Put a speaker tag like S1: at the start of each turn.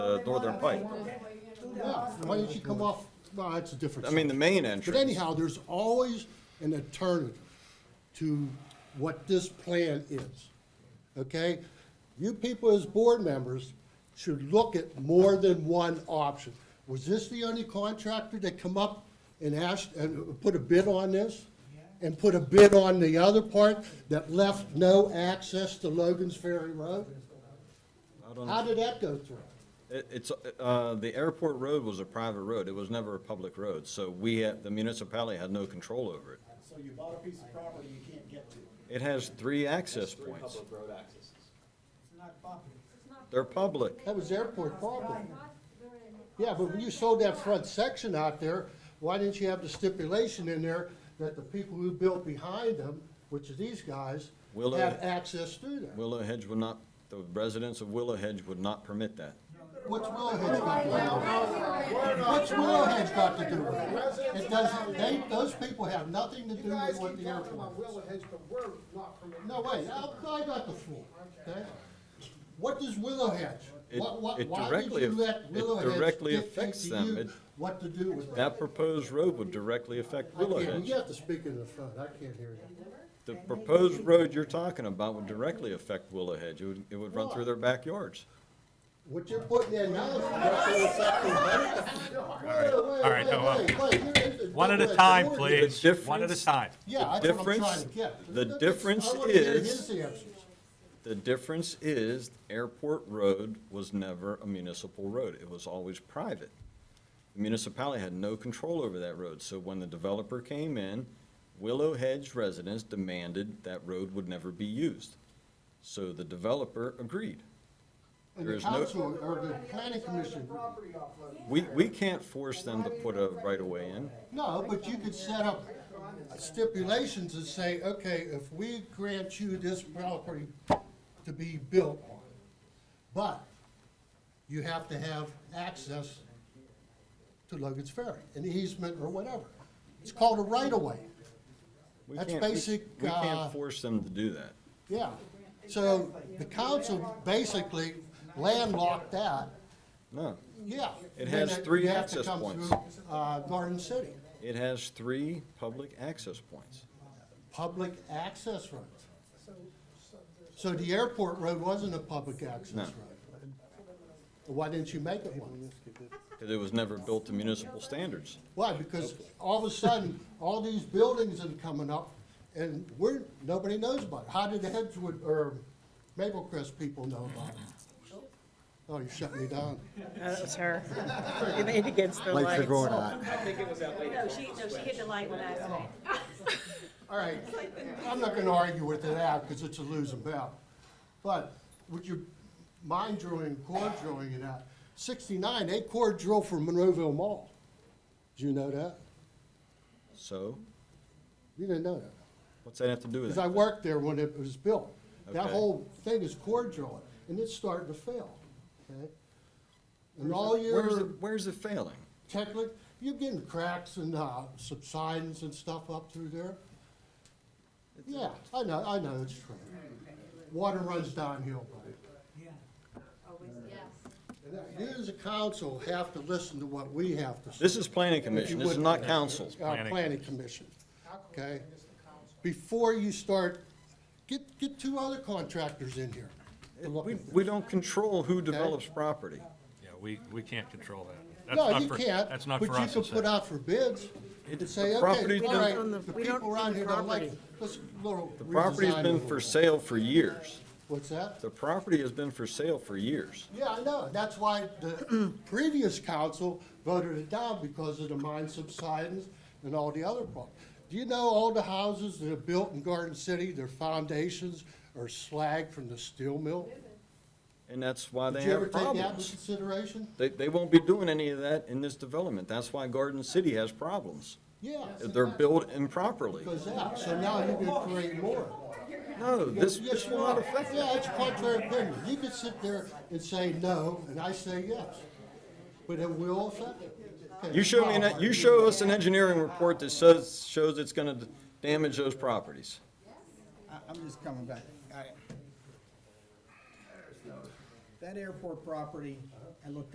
S1: the northern pike.
S2: Yeah, why don't you come off, well, that's a different.
S1: I mean, the
S2: subject.
S1: main
S2: But
S1: entrance,
S2: anyhow, there's always an alternative to what this plan is, okay? You people as board members should look at more than one option. Was this the only contractor that come up and asked, and put a bid on this? And put a bid on the other part that left no access to Logan's Ferry Road?
S1: I don't
S2: How
S1: know.
S2: did that go through?
S1: It- it's, uh, the airport road was a private road, it was never a public road, so we, had- the municipality had no control over it.
S3: So you bought a piece of property you can't get to.
S1: It has three access points,
S4: road accesses.
S3: It's not property.
S1: they're public.
S2: That was airport property. Yeah, but when you sold that front section out there, why didn't you have the stipulation in there that the people who built behind them, which is these guys,
S1: Willow-
S2: have access through there?
S1: Willow Hedge would not, the residents of Willow Hedge would not permit that.
S2: What's Willowhead got to do with it? What's Willowhead got to do with it? It doesn't, they, those people have nothing to do
S5: You guys
S2: with
S5: keep
S2: what
S5: talking
S2: the
S5: about
S2: airport.
S5: Willow Hedge, but we're not permitted.
S2: No, wait, I, I got the floor, okay? What does Willowhead,
S1: It-
S2: what, what,
S1: it
S2: why did
S1: directly
S2: you
S1: aff-
S2: let
S1: it
S2: Willowhead
S1: directly
S2: dictate
S1: affects
S2: to
S1: them.
S2: you
S1: It-
S2: what to do with that?
S1: That proposed road would directly affect
S2: I
S1: Willow
S2: can't,
S1: Hedge.
S2: you have to speak in the front, I can't hear you.
S1: The proposed road you're talking about would directly affect Willow Hedge, it would, it would run through their backyards.
S2: What you're putting in now is directly affecting them. All
S6: right, no, uh, One at a time, please.
S1: difference-
S6: One at a time.
S2: Yeah,
S1: The
S2: that's what I'm trying to
S1: difference-
S2: get.
S1: the
S2: That's-
S1: difference
S2: I wanna hear
S1: is-
S2: his answers.
S1: The difference is Airport Road was never a municipal road. It was always private. The municipality had no control over that road. So when the developer came in, Willow Hedge residents demanded that road would never be used. So the developer agreed.
S2: And
S1: There
S2: the
S1: is no-
S2: council or the planning commission,
S5: Property off of.
S1: We, we can't force them to put a right-of-way in.
S2: no, but you could set up stipulations and say, okay, if we grant you this property to be built on, but you have to have access to Logan's Ferry, an easement or whatever. It's called a right-of-way.
S1: We
S2: That's
S1: can't- we-
S2: basic,
S1: We
S2: uh,
S1: can't force them to do that.
S2: Yeah, so the council basically landlocked that,
S1: No.
S2: yeah.
S1: It has
S2: Then
S1: three
S2: you have to
S1: access
S2: come
S1: points.
S2: through, Uh, Garden City,
S1: It has three public access points.
S2: public access roads. So the airport road wasn't a public
S1: No.
S2: access road. Why didn't you make it one?
S1: Because it was never built to municipal standards.
S2: Why, because all of a sudden, all these buildings are coming up, and we're, nobody knows about it. How did the Hedgewood, or Maple Crest people know about it? Oh, you're shutting me down.
S7: That's her. You leaned against the
S8: Lights are
S7: lights.
S8: going out.
S9: No, she, no, she hit the light when I said.
S2: All right, I'm not gonna argue with it out, because it's a losing battle. But with your mind drilling, core drilling and that, sixty-nine, they core drilled for Monroeville Mall. Did you know that?
S1: So
S2: You didn't know that?
S1: what's that have to do with
S2: Because I
S1: it?
S2: worked there when it was built. That
S1: Okay.
S2: whole thing is core drilling, and it's starting to fail, okay? And all
S1: Where's
S2: your
S1: it, where's it failing?
S2: technically, you're getting cracks and uh, subsidence and stuff up through there. Yeah, I know, I know, it's true. Water runs downhill, buddy. And that- You as a council have to listen to what we have to say.
S1: This is planning commission, this is
S2: would-
S1: not council.
S2: Our planning commission, okay? Before you start, get, get two other contractors in here. to look
S1: We,
S2: at this.
S1: we don't control who develops property.
S6: Yeah, we, we can't control that. That's
S2: No,
S6: not
S2: you
S6: for-
S2: can't,
S6: That's not
S2: but
S6: for
S2: you
S6: us
S2: can
S6: to say.
S2: put out for bids and say, okay,
S1: property
S2: all
S7: don't-
S2: right,
S7: on the-
S2: the
S7: we don't
S2: people
S7: own
S2: around
S7: the
S2: here don't like, it.
S7: property.
S2: let's, little.
S1: The property's
S2: redesign
S1: been
S2: it.
S1: for sale for years.
S2: What's that?
S1: The property has been for sale for years.
S2: Yeah, I know, that's why the previous council voted it down because of the mine subsidence and all the other problems. Do you know all the houses that are built in Garden City, their foundations are slag from the steel mill?
S1: And that's why they
S2: Did you ever
S1: have
S2: take that into
S1: problems.
S2: consideration?
S1: They, they won't be doing any of that in this development. That's why Garden City has problems.
S2: Yeah,
S1: They're built improperly.
S2: goes out, so now you can create more.
S1: No, this,
S2: Yes,
S1: this
S2: you
S1: will
S2: are.
S1: not affect
S2: Yeah,
S1: that.
S2: it's contrary opinion. You could sit there and say no, and I say yes, but it will affect it. Okay,
S1: You show me, an- you show us an engineering report that says, shows it's gonna damage those properties.
S4: I, I'm just coming back. I- That airport property, I looked